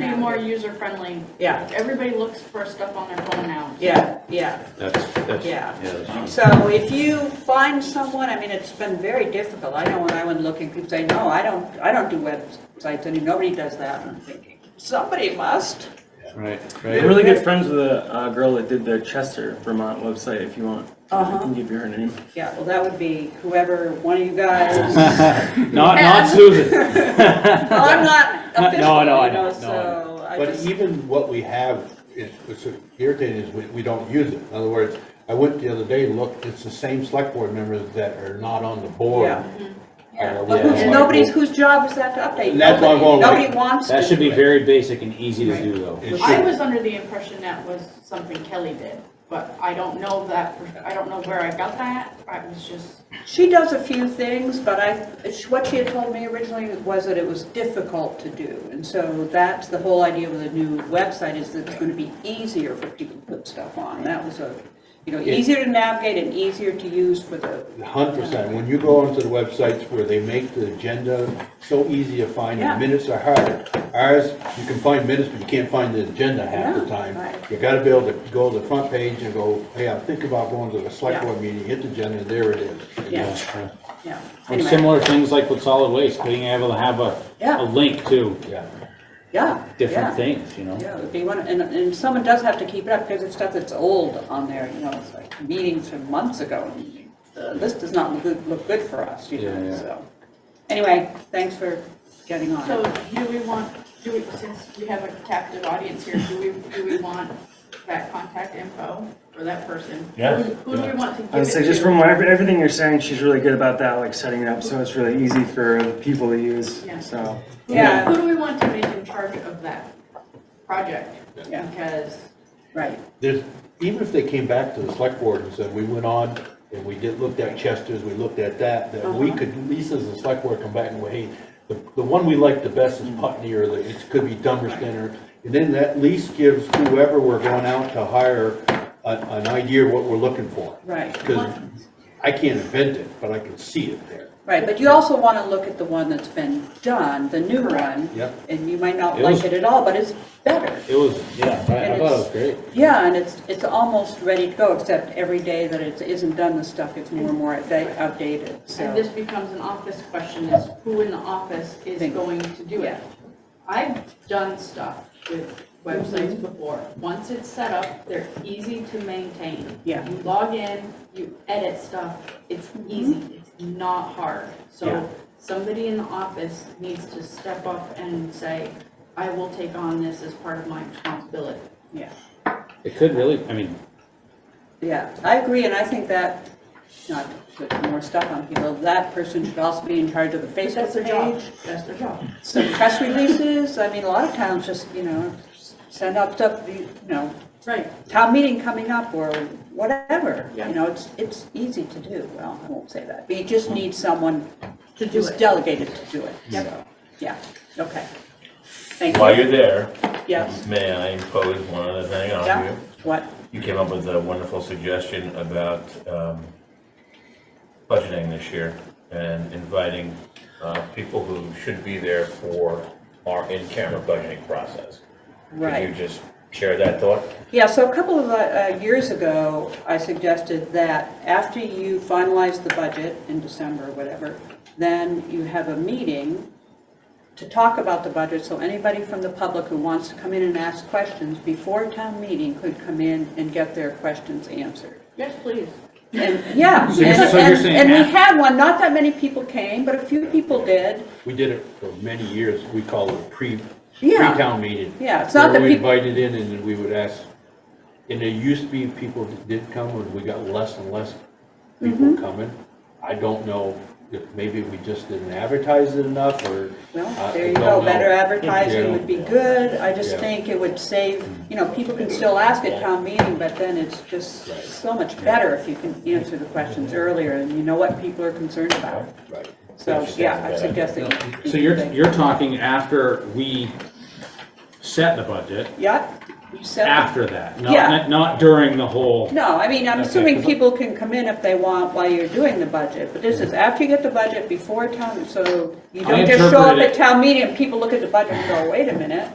more user-friendly. Yeah, Everybody looks for stuff on their phone now. yeah, yeah. That's, that's, Yeah. yeah. So if you find someone, I mean, it's been very difficult. I know when I went looking, people say, no, I don't, I don't do websites, and nobody does that. And I'm thinking, somebody must. Right, I'm right. really good friends with a uh, girl that did the Chester, Vermont website. If you want, Uh-huh. I can give you her name. Yeah, well, that would be whoever, one of you guys. Not, not Susan. Well, I'm not No, official, no, I you know, know, no, so I But just, even what we have is, what's irritating is we, we don't use it. In other words, I went the other day, and looked, it's the same select board members that are not on the board. Yeah. yeah. But Are the ones who's, like- nobody's, whose job is that to update? And that's why I'm Nobody- going like- Nobody wants to. That should be very basic and easy to do, though. It I should- was under the impression that was something Kelly did, but I don't know that, for- I don't know where I got that. I was just, She does a few things, but I, what she had told me originally was that it was difficult to do. And so that's the whole idea with the new website is that it's going to be easier for people to put stuff on. That was a, you know, easier to navigate and easier to use for the, Hundred percent. When you go onto the websites where they make the agenda so easy to find, Yeah. and minutes are hard. Ours, you can find minutes, but you can't find the agenda half the No, time. right. You gotta be able to go to the front page and go, hey, I'm thinking about going to the select Yeah. board meeting, hit the agenda, and there it is. yeah, Yeah. yeah. And Anyway, similar things like with solid waste, being able to have a, Yeah. a link to Yeah. Yeah. yeah. different things, you know? Yeah, if you want, and, and someone does have to keep it up because it's stuff that's old on there, you know, it's like meetings from months ago. Uh, This does not look, good- look good for us, you Yeah, know, yeah. so. Anyway, thanks for getting on. so it. do we want, do we, since we have a captive audience here, do we, do we want that contact info for that person? Yeah. Who who do we want to give it to? I would say just from what- everything you're saying, she's really good about that, like setting it up so it's really easy for the people to use. Yeah. So Who- Yeah. Who do we want to make in charge of that project? Yeah. Because Right, There's, even if they came back to the select board and said, we went on and we did, looked at Chester's, we looked at that, that we Uh-huh. could, at least as a select board, come back and go, hey, the, the one we like the best Mm-hmm. is Putney or the, it could be Dummerston or, and then that at least gives whoever we're going out to hire an, an idea of what we're looking for. right, Because I can't invent it, but I can see it there. right, but you also want to look at the one that's been done, the new one. Yep. And you might not It like was- it at all, but it's better. It was, yeah, I- I And thought it it's- was great. Yeah, and it's, it's almost ready to go, except every day that it isn't done, the stuff gets more and more upda- outdated, so. And this becomes an office question, is who in the office is Thank you. going to do Yeah. it? I've done stuff with websites before. Once it's set up, they're easy to maintain. Yeah. You log in, you edit stuff, it's easy, it's not hard. Yeah. So somebody in the office needs to step up and say, I will take on this as part of my responsibility. Yeah. It could really, I mean, Yeah, I agree, and I think that, not to put more stuff on people, that person should also be in charge of the That's Facebook their job, page, that's their job. some press releases, I mean, a lot of towns just, you know, send out stuff, you know, Right. town meeting coming up or whatever, Yeah. you know, it's, it's easy to do, well, I won't say that, but you just need someone To do who's it. delegated to do it, Yep. so, yeah, okay. Thank While you, you're there, yes, may I impose one other thing on yeah, you? what, You came up with a wonderful suggestion about um, budgeting this year and inviting uh, people who should be there for our in-camera budgeting process. Could you right. just share that thought? Yeah, so a couple of uh, years ago, I suggested that after you finalize the budget in December, or whatever, then you have a meeting to talk about the budget, so anybody from the public who wants to come in and ask questions before town meeting could come in and get their questions answered. Yes, please. And, yeah. So you're- and- so you're and- saying And we after- had one, not that many people came, but a few people did. We did it for many years, we call it pre, Yeah. pre-town meeting. Yeah, it's not Where that we peop- invited in and then we would ask, and there used to be people that did come, and we got less and less people Mm-hmm. coming. I don't know if maybe we just didn't advertise it enough, or. Well, I- there I you Uh, don't go, know. better advertising Yeah. would be good, I just Yeah. think it would save, you know, people can still ask at town meeting, but then it's just Right. so much better if you can answer the questions earlier, and you know what people are concerned about. Right. So, That's- yeah, I that's suggest that. you- so you're, you're talking after we set the budget, Yep, you said. after that, Yeah. not, not during the whole. No, I mean, I'm Okay, assuming 'cause I- people can come in if they want while you're doing the budget, but this is after you get the budget, before town, so you I don't just show up interpreted at it- town meeting and people look at the budget and go, wait a minute.